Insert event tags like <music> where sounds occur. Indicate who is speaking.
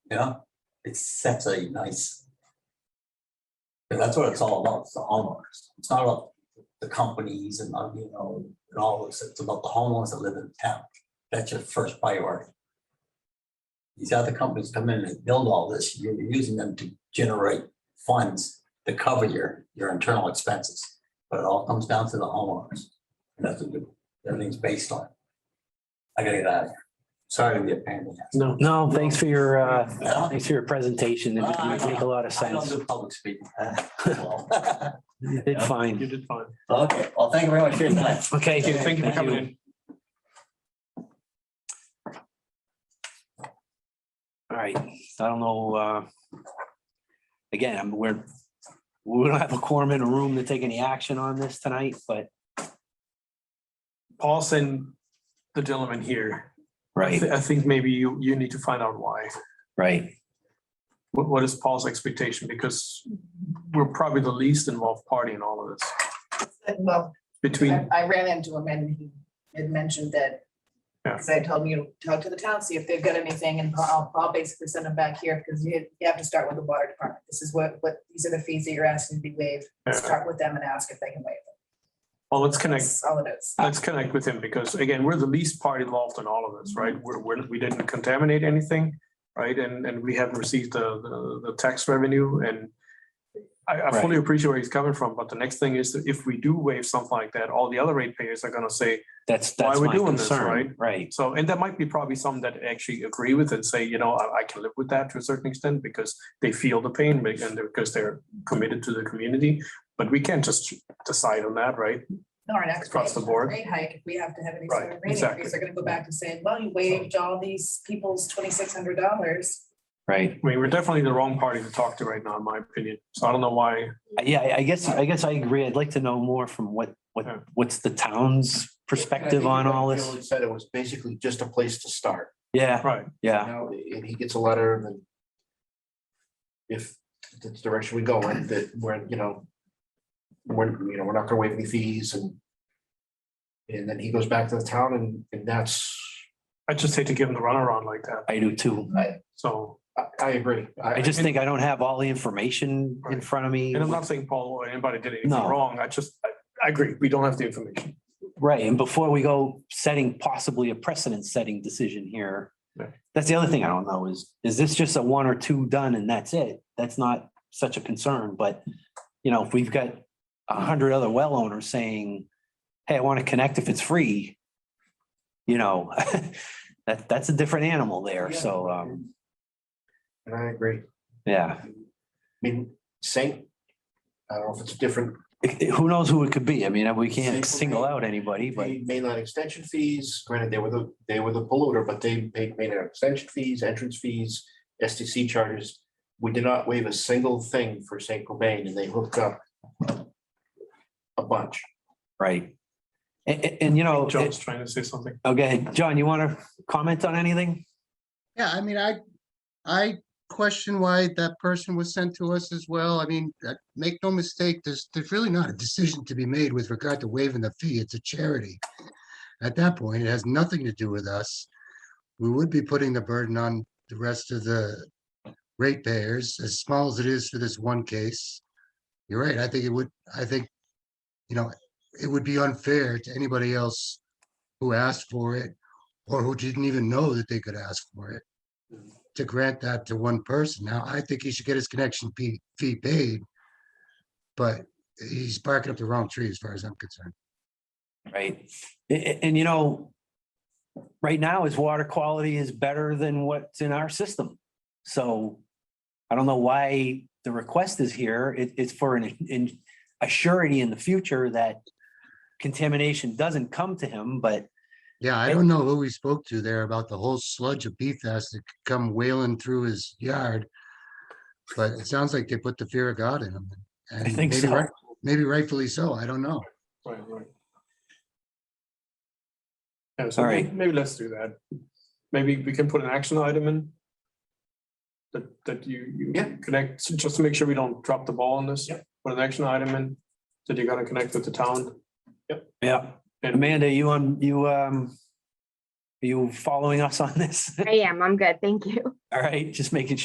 Speaker 1: Yeah, it's such a nice. and that's what it's all about, it's the homeowners. It's not about the companies and, uh, you know, and all this. It's about the homeowners that live in town. That's your first priority. These other companies come in and build all this, you're using them to generate funds to cover your, your internal expenses. But it all comes down to the homeowners. And that's what everything's based on. I gotta get out of here. Sorry to be a pain in the ass.
Speaker 2: No, no, thanks for your, uh,
Speaker 1: Yeah.
Speaker 2: thanks for your presentation. It did make a lot of
Speaker 1: I don't
Speaker 2: sense.
Speaker 1: do public speaking. Well,
Speaker 2: You Did
Speaker 3: You
Speaker 2: fine.
Speaker 3: did fine.
Speaker 1: <laughs> Okay, well, thank you very much for your time.
Speaker 2: Okay.
Speaker 3: Thank you. Thank you for coming in.
Speaker 2: All right. I don't know, uh, again, I'm- we're, we don't have a quorum in a room to take any action on this tonight, but.
Speaker 3: I'll send the gentleman here. I
Speaker 2: Right,
Speaker 3: thi- I think maybe you, you need to find out why.
Speaker 2: right.
Speaker 3: What, what is Paul's expectation? Because we're probably the least involved party in all of this.
Speaker 4: Well, I
Speaker 3: Between,
Speaker 4: I ran into him and he had mentioned that.
Speaker 3: Yeah.
Speaker 4: Because I told him, you know, talk to the town, see if they've got anything, and I'll, I'll basically send them back here, because you, you have to start with the water department. This is what, what, these are the fees that you're asking to be waived.
Speaker 3: uh,
Speaker 4: Start with them and ask if they can waive them.
Speaker 3: well, let's connect,
Speaker 4: That's all it is.
Speaker 3: let's connect with him because again, we're the least party involved in all of this, right? We're, we're, we didn't contaminate anything, right? And, and we haven't received the, the, the tax revenue and I, I fully appreciate where he's coming from, but the next thing is that if we do waive something like that, all the other ratepayers are gonna say,
Speaker 2: That's,
Speaker 3: Why
Speaker 2: that's
Speaker 3: we
Speaker 2: my
Speaker 3: doing this,
Speaker 2: concern. Right,
Speaker 3: So, and there might be probably some that actually agree with and say, you know, I, I can live with that to a certain extent because they feel the pain be- and they're- because they're committed to the community. But we can't just decide on that, right?
Speaker 4: Our next.
Speaker 3: Across the board.
Speaker 4: Rate hike, if we have to have any sort
Speaker 3: Right,
Speaker 4: of rate
Speaker 3: exactly.
Speaker 4: increase, they're gonna go back to saying, well, you waived all these people's twenty-six hundred dollars.
Speaker 2: right.
Speaker 3: I mean, we're definitely the wrong party to talk to right now, in my opinion. So I don't know why.
Speaker 2: Yeah, I- I guess, I guess I agree. I'd like to know more from what,
Speaker 3: Yeah.
Speaker 2: what, what's the town's perspective
Speaker 5: And I
Speaker 2: on
Speaker 5: think
Speaker 2: all
Speaker 5: what
Speaker 2: this?
Speaker 5: Dylan Said it was basically just a place to start,
Speaker 2: Yeah,
Speaker 3: Right.
Speaker 5: you
Speaker 2: yeah,
Speaker 5: know, and he gets a letter and then if that's the direction we go in, that we're, you know, we're, you know, we're not gonna waive any fees and and then he goes back to the town and, and that's,
Speaker 3: I just hate to give them the runaround like that.
Speaker 2: I do too.
Speaker 3: So,
Speaker 5: I, I agree.
Speaker 2: I just think I don't have all the information in front of me.
Speaker 3: and I'm not saying Paul or anybody did anything
Speaker 2: No.
Speaker 3: wrong. I just, I, I agree. We don't have the information.
Speaker 2: Right, and before we go setting possibly a precedent-setting decision here,
Speaker 3: Yeah.
Speaker 2: that's the other thing I don't know is, is this just a one or two done and that's it? That's not such a concern, but, you know, if we've got a hundred other well owners saying, hey, I want to connect if it's free, you know, <laughs> that, that's a different animal there, so, um,
Speaker 5: And I agree.
Speaker 2: yeah.
Speaker 5: I mean, same, I don't know if it's different,
Speaker 2: It- it- Who knows who it could be? I mean, we can't
Speaker 5: Same.
Speaker 2: single out anybody, but,
Speaker 5: paid mainline extension fees, granted, they were the, they were the polluter, but they paid mainline extension fees, entrance fees, STC charges. We did not waive a single thing for St. Cobain and they hooked up a bunch.
Speaker 2: right. And, and, and, you know,
Speaker 3: John's trying to say something.
Speaker 2: okay, John, you want to comment on anything?
Speaker 6: Yeah, I mean, I, I question why that person was sent to us as well. I mean, uh, make no mistake, there's, there's really not a decision to be made with regard to waiving the fee. It's a charity. At that point, it has nothing to do with us. We would be putting the burden on the rest of the ratepayers, as small as it is for this one case. You're right, I think it would, I think, you know, it would be unfair to anybody else who asked for it or who didn't even know that they could ask for it. To grant that to one person. Now, I think he should get his connection fee, fee paid. But he's barking up the wrong tree as far as I'm concerned.
Speaker 2: Right. A- a- And, you know, right now his water quality is better than what's in our system. So I don't know why the request is here. It, it's for an, in, a surety in the future that contamination doesn't come to him, but
Speaker 6: Yeah, I
Speaker 2: And-
Speaker 6: don't know who we spoke to there about the whole sludge of PFAS that could come wailing through his yard. But it sounds like they put the fear of God in him.
Speaker 2: I
Speaker 6: and
Speaker 2: think
Speaker 6: maybe
Speaker 2: so.
Speaker 6: right- Maybe rightfully so, I don't know.
Speaker 3: Right, right. Yeah, so
Speaker 2: All
Speaker 3: may-
Speaker 2: right.
Speaker 3: maybe let's do that. Maybe we can put an action item in. That, that you, you
Speaker 5: Yeah.
Speaker 3: connect, so just to make sure we don't drop the ball on this.
Speaker 5: Yep.
Speaker 3: Put an action item in, that you gotta connect with the town.
Speaker 2: yeah. Amanda, you on, you, um, are you following us on this? <laughs>
Speaker 7: I am. I'm good. Thank you.
Speaker 2: All right, just making sure.